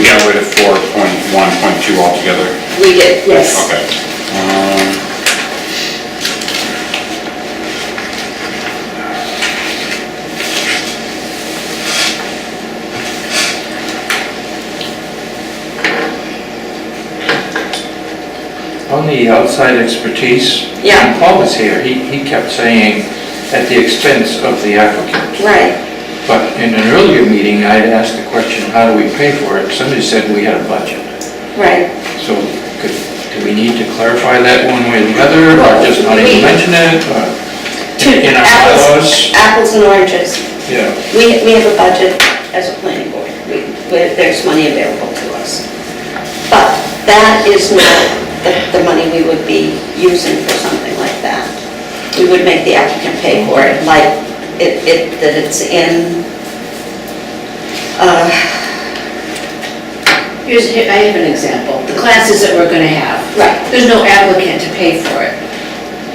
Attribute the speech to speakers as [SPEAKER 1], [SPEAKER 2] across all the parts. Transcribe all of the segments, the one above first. [SPEAKER 1] before point one, point two altogether?
[SPEAKER 2] We did, yes.
[SPEAKER 1] Okay. Um,
[SPEAKER 3] On the outside expertise,
[SPEAKER 2] Yeah.
[SPEAKER 3] when Paul was here, he, he kept saying, at the expense of the applicant.
[SPEAKER 2] Right,
[SPEAKER 3] But in an earlier meeting, I had asked the question, how do we pay for it? Somebody said we had a budget.
[SPEAKER 2] right.
[SPEAKER 3] So could, do we need to clarify that one way or the other, or just not even mention it? or In in our bylaws?
[SPEAKER 2] Apples- Apples and oranges.
[SPEAKER 3] Yeah.
[SPEAKER 2] We, we have a budget as a planning board. We, where there's money available to us. But that is not the, the money we would be using for something like that. We would make the applicant pay for it, like, it, it, that it's in, uh,
[SPEAKER 4] Here's, here- I have an example, the classes that we're gonna have.
[SPEAKER 2] Right.
[SPEAKER 4] There's no applicant to pay for it.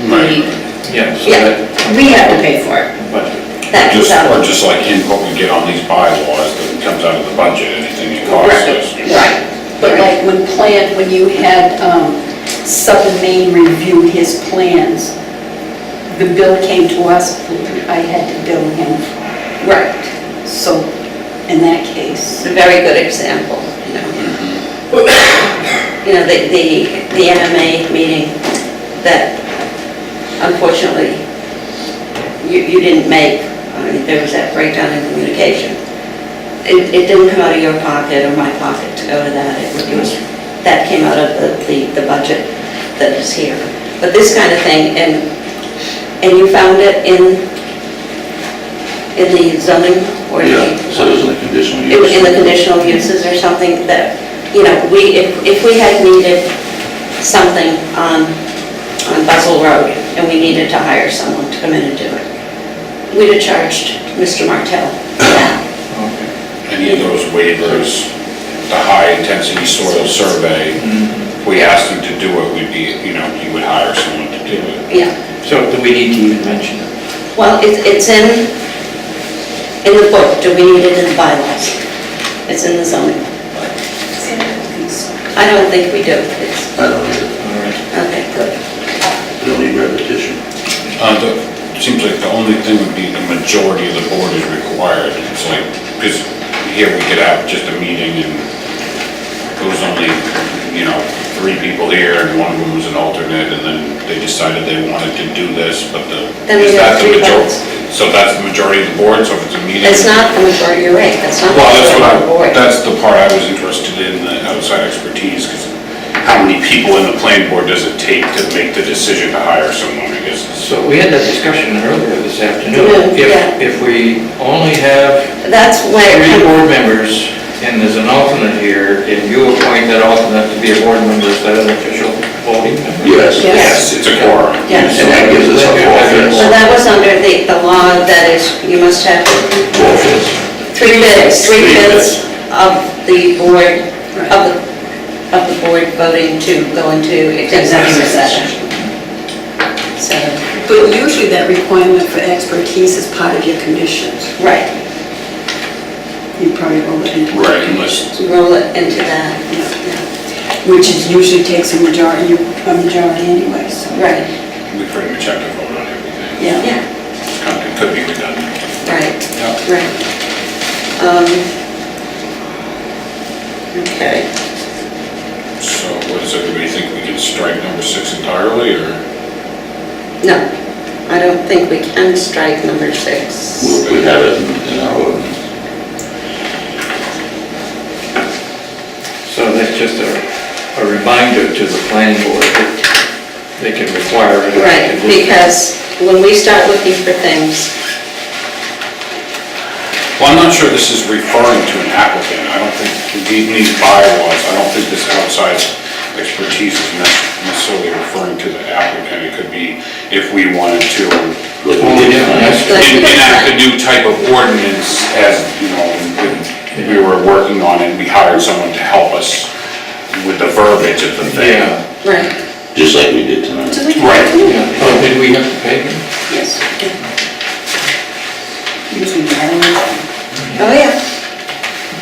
[SPEAKER 1] Right.
[SPEAKER 3] Yeah, so
[SPEAKER 2] Yeah.
[SPEAKER 3] that,
[SPEAKER 4] We have to pay for it.
[SPEAKER 3] budget.
[SPEAKER 2] that
[SPEAKER 1] Just,
[SPEAKER 2] comes out.
[SPEAKER 1] or just like input we get on these bylaws that comes out of the budget, anything it costs us.
[SPEAKER 5] Right, but like when plan, when you had um, Southern Maine review his plans, the bill came to us, I had to bill him,
[SPEAKER 2] Right,
[SPEAKER 5] so in that case,
[SPEAKER 2] it's a very good example, you know. You know, the, the, the MMA meeting that unfortunately you, you didn't make, I mean, there was that breakdown in communication. It, it didn't come out of your pocket or my pocket to go to that, it was, that came out of the, the, the budget that is here. But this kind of thing, and, and you found it in, in the zoning or the...
[SPEAKER 6] Yeah, so it was in the conditional
[SPEAKER 2] in,
[SPEAKER 6] use.
[SPEAKER 2] in the conditional uses or something that, you know, we, if, if we had needed something on, on Buzzell Road and we needed to hire someone to come in and do it, we'd have charged Mr. Martell for that.
[SPEAKER 3] Okay.
[SPEAKER 1] Any of those waivers, the high-intensity soil survey, if
[SPEAKER 2] Mm-hmm.
[SPEAKER 1] we asked him to do it, we'd be, you know, he would hire someone to do it.
[SPEAKER 2] Yeah,
[SPEAKER 3] So do we need to even mention it?
[SPEAKER 2] well, it's, it's in, in the book, do we need it in the bylaws? It's in the zoning. I don't think we do, it's,
[SPEAKER 6] I don't know,
[SPEAKER 3] All right.
[SPEAKER 2] okay, good.
[SPEAKER 6] you don't need repetition.
[SPEAKER 1] Uh, the- it Seems like the only thing would be the majority of the board is required. It's like, because here we could have just a meeting and there was only, you know, three people here and one of them was an alternate and then they decided they wanted to do this, but the,
[SPEAKER 2] Then we
[SPEAKER 1] is that
[SPEAKER 2] have
[SPEAKER 1] the
[SPEAKER 2] three
[SPEAKER 1] majority?
[SPEAKER 2] votes.
[SPEAKER 1] So that's the majority of the board, so if it's a meeting.
[SPEAKER 2] It's not the majority, you're right, that's not the
[SPEAKER 1] Well, that's
[SPEAKER 2] majority
[SPEAKER 1] what
[SPEAKER 2] of the
[SPEAKER 1] I,
[SPEAKER 2] board.
[SPEAKER 1] that's the part I was interested in, the outside expertise, because how many people in the planning board does it take to make the decision to hire someone, I guess? is-
[SPEAKER 3] So we had that discussion earlier this
[SPEAKER 2] Yeah,
[SPEAKER 3] afternoon.
[SPEAKER 2] yeah.
[SPEAKER 3] If, if we only have
[SPEAKER 2] That's where.
[SPEAKER 3] three board members and there's an alternate here, and you appoint that alternate to be a board member instead of an official voting member.
[SPEAKER 6] Yes.
[SPEAKER 1] Yes, it's a quorum.
[SPEAKER 2] Yes.
[SPEAKER 6] And that gives us a
[SPEAKER 2] So
[SPEAKER 6] office,
[SPEAKER 2] that was under the, the law that is, you must have
[SPEAKER 6] office,
[SPEAKER 2] three bids, three
[SPEAKER 6] Three
[SPEAKER 2] bids of the board, of
[SPEAKER 5] Right.
[SPEAKER 2] the, of the board voting to go into executive session. So,
[SPEAKER 5] but usually that requirement for expertise is part of your conditions.
[SPEAKER 2] right,
[SPEAKER 5] You probably roll it into.
[SPEAKER 1] Right, unless,
[SPEAKER 2] to roll it into that,
[SPEAKER 5] Yeah, Which is usually takes a majority, a majority anyway, so.
[SPEAKER 2] right,
[SPEAKER 1] we pretty much have to vote on everything.
[SPEAKER 5] Yeah.
[SPEAKER 2] yeah,
[SPEAKER 1] It's kind of- It could be redundant.
[SPEAKER 2] right,
[SPEAKER 1] Yeah.
[SPEAKER 2] right. Um, Okay,
[SPEAKER 1] So what does everybody think, we can strike number six entirely, or?
[SPEAKER 2] no, I don't think we can strike number six.
[SPEAKER 6] we we have it in- in our ordinance.
[SPEAKER 3] So that's just a, a reminder to the planning board that they can require it.
[SPEAKER 2] Right, because when we start looking for things,
[SPEAKER 1] Well, I'm not sure this is referring to an applicant. I don't think, in these bylaws, I don't think this outside expertise is ne- necessarily referring to the applicant. It could be if we wanted to
[SPEAKER 6] Like we
[SPEAKER 3] Only
[SPEAKER 6] did.
[SPEAKER 3] different aspect.
[SPEAKER 1] en- enact a new type of ordinance as, you know, when we were working on it, we hired someone to help us with the verbiage of the thing.
[SPEAKER 3] Yeah.
[SPEAKER 2] right,
[SPEAKER 6] just like we did tonight.
[SPEAKER 5] Do we
[SPEAKER 1] Right.
[SPEAKER 3] Yeah. Oh, did we have to pay them?
[SPEAKER 5] Yes. Usually, I don't know.
[SPEAKER 2] oh yeah,